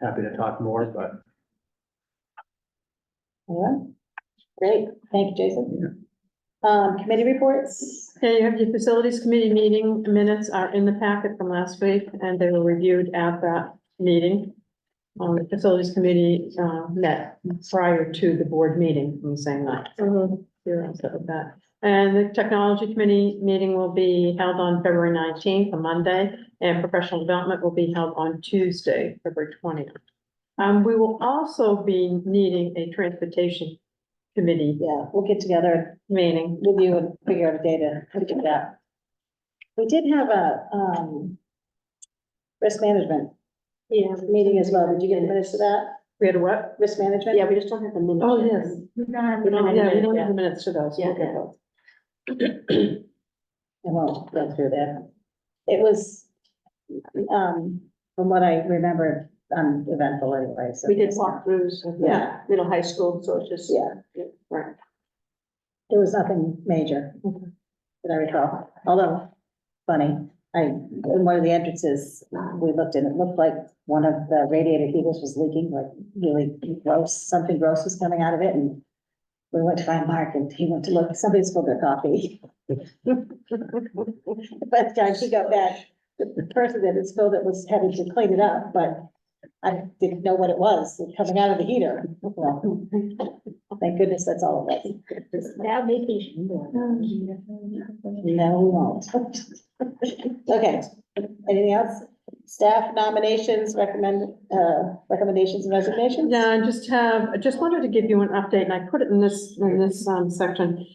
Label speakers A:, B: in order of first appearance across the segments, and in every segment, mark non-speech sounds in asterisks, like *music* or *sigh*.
A: happy to talk more, but
B: Yeah, great, thank you, Jason. Um, committee reports,
C: Yeah, you have your facilities committee meeting minutes are in the packet from last week and they were reviewed at that meeting. Um, the facilities committee, uh, met prior to the board meeting on the same night.
B: Mm-hmm.
C: You're on top of that. And the technology committee meeting will be held on February nineteenth, a Monday, and professional development will be held on Tuesday, February twentieth. Um, we will also be needing a transportation committee
B: yeah, we'll get together
C: meeting.
B: with you and figure out a day to to do that. We did have a, um, risk management
C: Yeah.
B: meeting as well, did you get the minutes of that,
C: We had a what?
B: risk management?
D: we just don't have the minutes.
C: Oh, yes.
D: We don't have
C: We don't, yeah, we don't
D: yeah.
C: have the minutes to those.
D: Yeah,
C: Okay.
D: yeah. *clears throat*
B: I won't go through that. It was, um, from what I remember, uneventful anyway, so.
D: We did walkthroughs of the
B: Yeah.
D: middle high school, so it's just.
B: Yeah,
D: Right.
B: there was nothing major
C: Okay.
B: that I recall, although funny, I, in one of the entrances, we looked and it looked like one of the radiator heaters was leaking, like really gross, something gross was coming out of it and we went to find Mark and he went to look, somebody spilled their coffee. *laughs* By the time he got back, the person that had spilled it was having to clean it up, but I didn't know what it was coming out of the heater. Well, *laughs* Thank goodness that's all it was.
D: Now vacation.
B: No, we won't. Okay, anything else? Staff nominations, recommend, uh, recommendations and resignations?
C: Yeah, I just have, I just wanted to give you an update, and I put it in this, in this, um, section.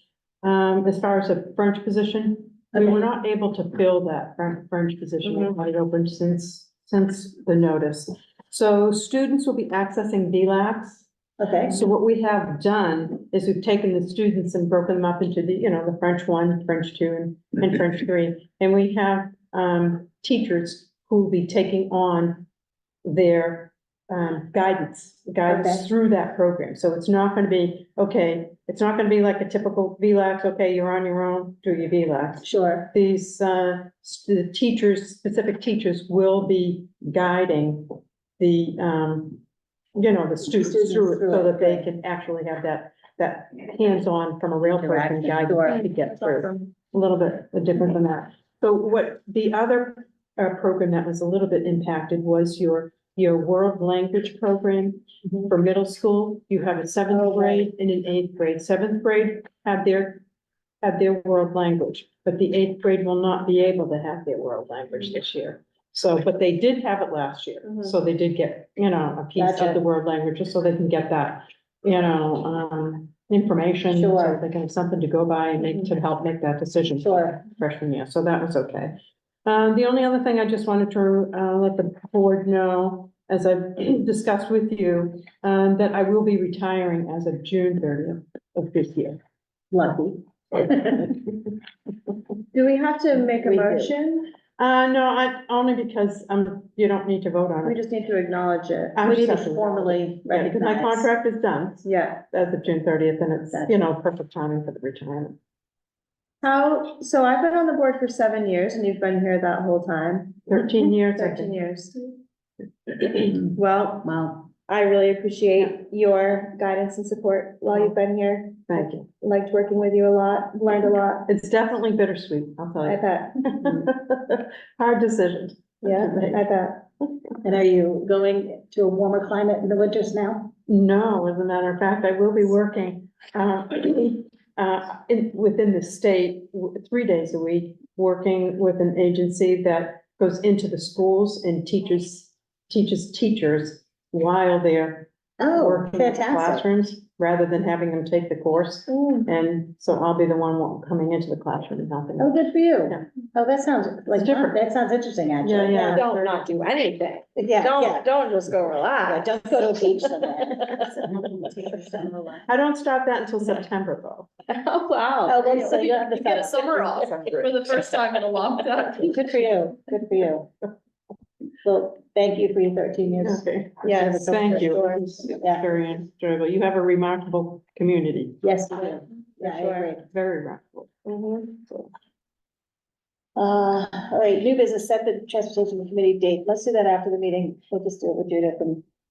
C: Um, as far as the French position, we were not able to fill that French, French position, we had it open since, since the notice. So students will be accessing VLAX.
B: Okay,
C: So what we have done is we've taken the students and broken them up into the, you know, the French one, French two, and,
B: Mm-hmm.
C: and French three. And we have, um, teachers who will be taking on their, um, guidance,
B: Okay.
C: guidance through that program. So it's not gonna be, okay, it's not gonna be like a typical VLAX, okay, you're on your own, do your VLAX
B: sure,
C: these, uh, s- the teachers, specific teachers will be guiding the, um, you know, the students
B: Students
C: through it
B: through
C: so
B: it,
C: that they
B: right.
C: can actually have that, that hands-on from a rail person
B: Interaction,
C: guide
B: sure.
C: to get through. A little bit uh, different than that. So what the other, uh, program that was a little bit impacted was your, your world language program
B: Mhm.
C: for middle school. You have a
B: Oh,
C: seventh
B: right.
C: grade and an eighth grade. Seventh grade have their have their world language, but the eighth grade will not be able to have their world language this year. So, but they did have it last year, so they did get, you know, a piece
B: Mm-hmm. Gotcha.
C: of the world language, just so they can get that, you know, um, information. so
B: Sure. Mm-hmm.
C: They can have something to go by and make, to help make that decision
B: sure,
C: freshman year, so that was okay. Uh, the only other thing I just wanted to, uh, let the board know, as I've *clears throat* discussed with you, um, that I will be retiring as of June thirtieth of this year.
B: lucky.
D: Do we have to make
B: a We do.
D: motion?
C: Uh, no, I, only because, um, you don't need to vote on it.
D: just need to acknowledge it.
C: I'm
B: We need
C: just-
B: to formally
C: Yeah, because my
B: recognize.
C: contract is done
D: Yeah.
C: as of June thirtieth, and it's,
B: Gotcha.
C: you know, perfect timing for the retirement.
D: How, so I've been on the board for seven years and you've been here that whole time,
C: Thirteen years, I
D: Mm-hmm. thirteen
C: think.
D: years. *clears throat* Well,
B: Wow,
D: I really appreciate your guidance and support while you've been here.
C: thank you.
D: Liked working with you a lot, learned a lot,
C: It's definitely bittersweet, I'll tell
D: I
C: *laughs*
D: bet. Mm-hmm.
C: you. Hard decision.
D: Yeah, I bet.
B: and are you going to a warmer climate in the winters now?
C: No, as a matter of fact, I will be working, uh, *clears throat* uh, in, within the state, w- three days a week, working with an agency that goes into the schools and teaches, teaches teachers while they're
B: Oh,
C: working in
B: fantastic.
C: classrooms, rather than having them take the course.
B: Mm.
C: And so I'll be the one wa- coming into the classroom and helping
B: Oh,
C: them.
B: good for you.
C: Yeah.
B: Oh, that sounds like,
C: It's different.
B: that sounds interesting,
C: Yeah,
B: actually.
C: yeah.
E: Don't not do anything.
B: Yeah, yeah,
E: Don't, don't just go
B: yeah,
E: relax.
B: don't go to a beach somewhere.
C: I don't start that until September, though.
E: *laughs* Oh, wow.
B: Oh, well, so you have the
E: You get a summer off
B: *laughs*
E: for the first time in a long time.
B: Good for you, good for you. Well, thank you for your thirteen years.
C: Okay.
B: Yes,
C: Thank you.
B: sure.
C: It was
B: Yeah.
C: Very enjoyable. You have a remarkable community,
B: Yes, you do. Yeah, I
D: Sure.
B: agree.
C: very remarkable.
B: Uh, all right, new business, set the transportation committee date. Let's do that after the meeting. We'll just do it with Judith and